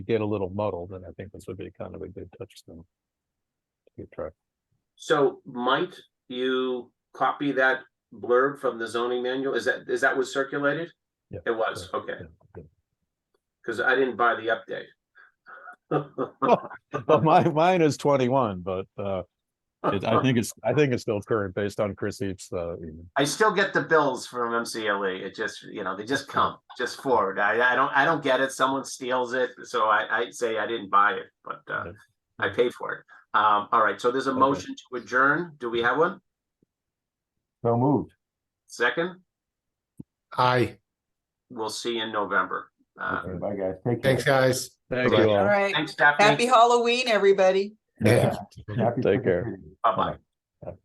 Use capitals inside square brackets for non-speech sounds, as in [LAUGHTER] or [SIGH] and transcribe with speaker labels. Speaker 1: get a little muddled, and I think this would be kind of a good touchstone. to Keep track.
Speaker 2: So might you copy that blurb from the zoning manual? Is that, is that was circulated?
Speaker 1: Yeah.
Speaker 2: It was, okay,
Speaker 1: Yeah, yeah.
Speaker 2: because I didn't buy the update.
Speaker 1: [LAUGHS] Well, my, mine is twenty-one, but, uh, it, I think it's, I think it's still current based on Chris Heap's, uh, email.
Speaker 2: I still get the bills from MCLE. E. It just, you know, they just come just forward. I, I don't, I don't get it. Someone steals it. So I, I say I didn't buy it, but, uh,
Speaker 1: Okay.
Speaker 2: I paid for it. Um, all right. So there's a
Speaker 1: Okay.
Speaker 2: motion to adjourn. Do we have one?
Speaker 3: So moved.
Speaker 2: Second?
Speaker 4: Aye.
Speaker 2: We'll see you in November. Uh,
Speaker 3: Okay, Bye, guys. Take care.
Speaker 4: Thanks, guys.
Speaker 1: Thank
Speaker 4: Right.
Speaker 1: you
Speaker 5: All
Speaker 1: all.
Speaker 5: right.
Speaker 2: thanks, Stephanie.
Speaker 5: Happy Halloween, everybody.
Speaker 3: Yeah. Happy
Speaker 1: Take care.
Speaker 3: trick-or-treating.
Speaker 2: Bye-bye.